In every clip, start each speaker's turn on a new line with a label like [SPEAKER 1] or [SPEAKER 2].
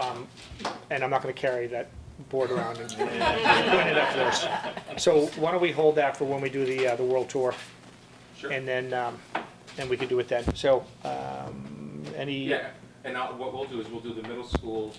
[SPEAKER 1] um, and I'm not gonna carry that board around and put it up first. So why don't we hold that for when we do the, uh, the world tour?
[SPEAKER 2] Sure.
[SPEAKER 1] And then, um, then we can do it then. So, um, any,
[SPEAKER 2] Yeah, and I'll, what we'll do is we'll do the middle school,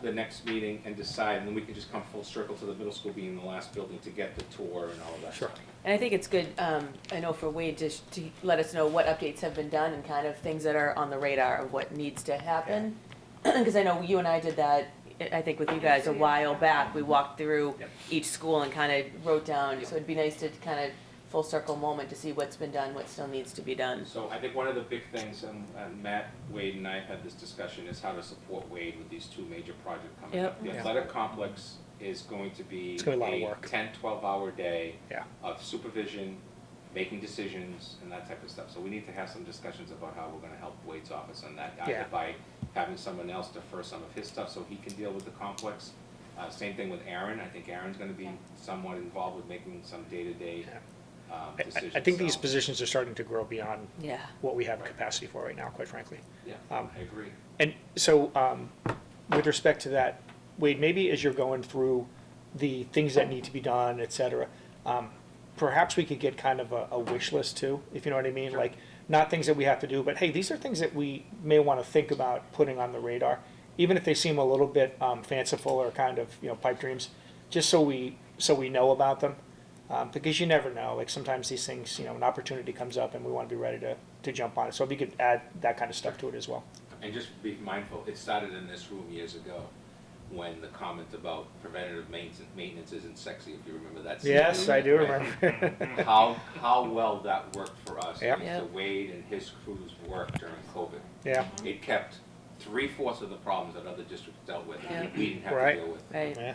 [SPEAKER 2] the next meeting, and decide, and then we can just come full circle to the middle school being the last building to get the tour and all of that.
[SPEAKER 1] Sure.
[SPEAKER 2] stuff.
[SPEAKER 3] And I think it's good, um, I know for Wade, just to let us know what updates have been done and kind of things that are on the radar of what needs to happen. Cause I know you and I did that, I I think with you guys a while back, we walked through
[SPEAKER 2] Yep.
[SPEAKER 3] each school and kind of wrote down,
[SPEAKER 2] Yep.
[SPEAKER 3] so it'd be nice to kind of full circle moment to see what's been done, what still needs to be done.
[SPEAKER 2] So I think one of the big things, and, and Matt, Wade and I have had this discussion, is how to support Wade with these two major projects coming up.
[SPEAKER 3] Yep.
[SPEAKER 2] The
[SPEAKER 1] Yeah.
[SPEAKER 2] athletic complex is going to be
[SPEAKER 1] It's gonna be a lot of work.
[SPEAKER 2] 10, 12 hour day
[SPEAKER 1] Yeah.
[SPEAKER 2] of supervision, making decisions and that type of stuff. So we need to have some discussions about how we're gonna help Wade's office on that,
[SPEAKER 1] Yeah.
[SPEAKER 2] either by having someone else defer some of his stuff so he can deal with the complex. Uh, same thing with Aaron, I think Aaron's gonna be somewhat involved with making some day-to-day,
[SPEAKER 1] I-
[SPEAKER 2] um,
[SPEAKER 1] I,
[SPEAKER 2] decisions.
[SPEAKER 1] I think these
[SPEAKER 2] So,
[SPEAKER 1] positions are starting to grow beyond
[SPEAKER 3] Yeah.
[SPEAKER 1] what we have capacity for right now, quite frankly.
[SPEAKER 2] Yeah,
[SPEAKER 1] um,
[SPEAKER 2] I agree.
[SPEAKER 1] And so, um, with respect to that, Wade, maybe as you're going through the things that need to be done, et cetera, um, perhaps we could get kind of a, a wish list too, if you know what I mean?
[SPEAKER 2] Sure.
[SPEAKER 1] Like, not things that we have to do, but hey, these are things that we may want to think about putting on the radar, even if they seem a little bit um, fanciful or kind of, you know, pipe dreams, just so we, so we know about them. Um, because you never know, like sometimes these things, you know, an opportunity comes up and we want to be ready to, to jump on it. So if you could add that kind of stuff to it as well.
[SPEAKER 2] And just be mindful, it started in this room years ago, when the comment about preventative maintenance, maintenance isn't sexy, if you remember that.
[SPEAKER 1] Yes, I do
[SPEAKER 2] right?
[SPEAKER 1] remember.
[SPEAKER 2] How, how well that worked for us,
[SPEAKER 1] Yep.
[SPEAKER 2] is the Wade and his crew's work during COVID.
[SPEAKER 1] Yeah,
[SPEAKER 2] It kept three fourths of the problems that other districts dealt with, and
[SPEAKER 3] Yeah.
[SPEAKER 2] we didn't have to
[SPEAKER 1] Right.
[SPEAKER 2] deal with.
[SPEAKER 3] Right,
[SPEAKER 1] yeah.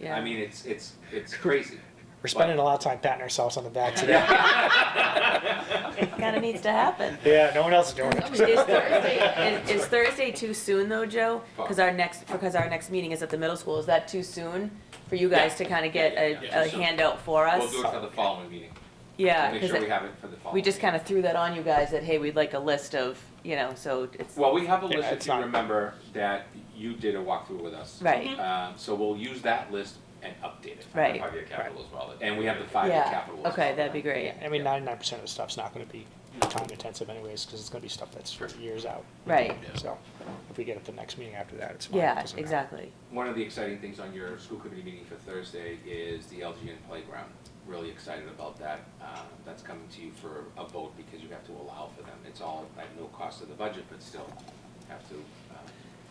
[SPEAKER 3] yeah.
[SPEAKER 2] I mean, it's, it's, it's crazy.
[SPEAKER 1] We're spending a lot of time patting ourselves on the back today.
[SPEAKER 3] It kind of needs to happen.
[SPEAKER 1] Yeah, no one else is doing
[SPEAKER 3] Is
[SPEAKER 1] it.
[SPEAKER 3] Thursday, is, is Thursday too soon though, Joe? Because our next, because our next meeting is at the middle school, is that too soon for you guys to kind of get
[SPEAKER 2] Yeah,
[SPEAKER 3] a, a
[SPEAKER 2] too soon.
[SPEAKER 3] handout for
[SPEAKER 2] We'll
[SPEAKER 3] us?
[SPEAKER 2] do it for the following meeting,
[SPEAKER 3] Yeah,
[SPEAKER 2] make
[SPEAKER 3] because
[SPEAKER 2] sure we have it for the following.
[SPEAKER 3] we just
[SPEAKER 2] meeting.
[SPEAKER 3] kind of threw that on you guys that, hey, we'd like a list of, you know, so it's,
[SPEAKER 2] Well, we have a
[SPEAKER 1] Yeah,
[SPEAKER 2] list,
[SPEAKER 1] it's
[SPEAKER 2] if you
[SPEAKER 1] not-
[SPEAKER 2] remember, that you did a walkthrough with us.
[SPEAKER 3] right,
[SPEAKER 2] Um, so we'll use that list and update it.
[SPEAKER 3] Mm-hmm. Right.
[SPEAKER 2] Five-year capital as well. And we have the five-year
[SPEAKER 3] yeah,
[SPEAKER 2] capital. as
[SPEAKER 3] okay,
[SPEAKER 2] well.
[SPEAKER 3] that'd be great,
[SPEAKER 1] I mean, ninety-nine percent of the stuff's not gonna be time intensive anyways, because it's gonna be stuff that's for years out.
[SPEAKER 3] right,
[SPEAKER 1] So if we get at the next meeting after that, it's fine. It
[SPEAKER 3] yeah,
[SPEAKER 1] doesn't matter.
[SPEAKER 3] exactly,
[SPEAKER 2] One of the exciting things on your school committee meeting for Thursday is the LGN playground. Really excited about that. Uh, that's coming to you for a vote because you have to allow for them. It's all at no cost to the budget, but still have to. uh,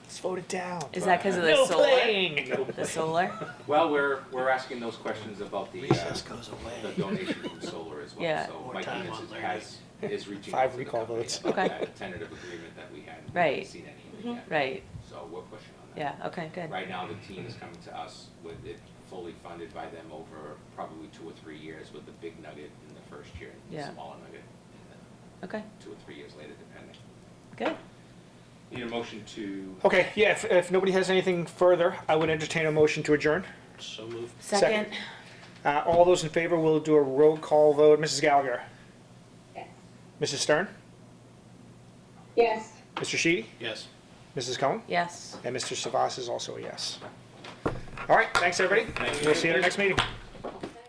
[SPEAKER 1] Let's vote it down.
[SPEAKER 3] is that because of the
[SPEAKER 1] No
[SPEAKER 3] solar?
[SPEAKER 1] playing!
[SPEAKER 3] The solar,
[SPEAKER 2] Well, we're, we're asking those questions about the, uh,
[SPEAKER 4] Recess goes
[SPEAKER 2] the
[SPEAKER 4] away.
[SPEAKER 2] donation from solar as well.
[SPEAKER 3] Yeah.
[SPEAKER 2] So
[SPEAKER 4] More
[SPEAKER 2] Mike
[SPEAKER 4] time
[SPEAKER 2] Enos
[SPEAKER 4] on
[SPEAKER 2] is-
[SPEAKER 4] learning.
[SPEAKER 2] has, is reaching out
[SPEAKER 1] Five
[SPEAKER 2] to the
[SPEAKER 1] recall
[SPEAKER 2] company
[SPEAKER 1] votes.
[SPEAKER 2] about
[SPEAKER 3] Okay.
[SPEAKER 2] that tentative agreement that we had. We
[SPEAKER 3] Right. Mm-hmm.
[SPEAKER 2] haven't seen anything yet.
[SPEAKER 3] right,
[SPEAKER 2] So we're pushing on that.
[SPEAKER 3] yeah, okay, good,
[SPEAKER 2] Right now, the team is coming to us with it fully funded by them over probably two or three years with the big nugget in the first year and
[SPEAKER 3] Yeah.
[SPEAKER 2] the smaller nugget in the
[SPEAKER 3] okay,
[SPEAKER 2] two or three years later, depending.
[SPEAKER 3] good,
[SPEAKER 2] Need a motion to,
[SPEAKER 1] Okay, yeah, if, if nobody has anything further, I would entertain a motion to adjourn.
[SPEAKER 4] So moved.
[SPEAKER 3] second,
[SPEAKER 1] Uh, all those in favor, we'll do a roll call vote. Mrs. Gallagher?
[SPEAKER 5] Yes.
[SPEAKER 1] Mrs. Stern?
[SPEAKER 5] Yes.
[SPEAKER 1] Mr. Sheedy?
[SPEAKER 4] Yes.
[SPEAKER 1] Mrs. Cohen?
[SPEAKER 3] yes.
[SPEAKER 1] And Mr. Savas is also a yes. All right, thanks, everybody. We'll see you at our next meeting.